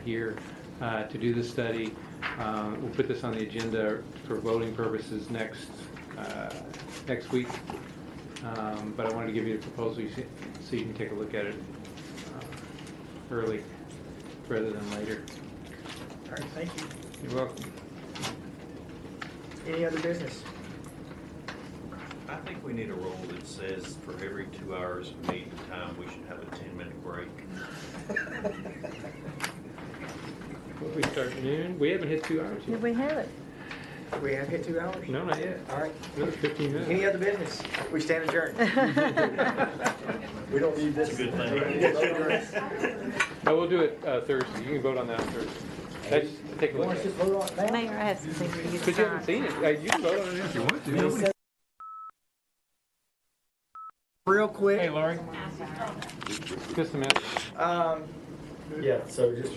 here uh, to do the study. Uh, We'll put this on the agenda for voting purposes next, uh, next week. Um, But I wanted to give you the proposal you see- so you can take a look at it uh, early rather than later. All right, thank you. You're welcome. Any other business? I think we need a rule that says for every two hours of meeting time, we should have a ten-minute break. What, We start at noon? We haven't hit two hours Did yet. we have it? We have hit two hours? No, not yet. All right. Another 15 minutes. Any other business? We stand adjourned. We don't need this. It's a good thing. We don't need this. No, we'll do it uh, Thursday. You can vote on that on Thursday. That's, take a look at it. Mayor, I have something for you to Because you haven't sign. seen it. Uh, You can vote on it if you want to. Real quick, Laurie. Just a minute. um, Yeah, so just,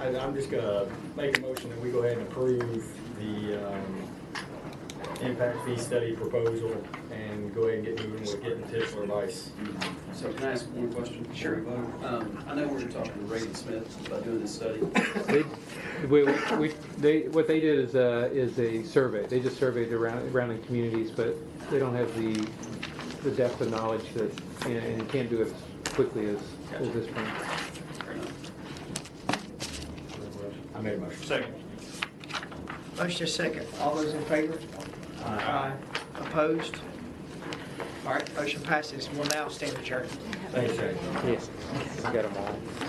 I, I'm just gonna make a motion that we go ahead and approve the, um, impact fee study proposal and go ahead and get moving with getting Tischler Vice. So can I ask one question? Sure. Um, I know we're talking to Reagan Smith about doing this study. They, we, we, they, what they did is, uh, is a survey. They just surveyed around, surrounding communities, but they don't have the, the depth of knowledge that, and, and you can't do it as quickly as, as this one. Fair enough. I made a motion. Second. motion is second. All those in favor? Aye. Opposed? All right, motion passes. We'll now stand adjourned. Thanks, Shane. Yes. I got them all.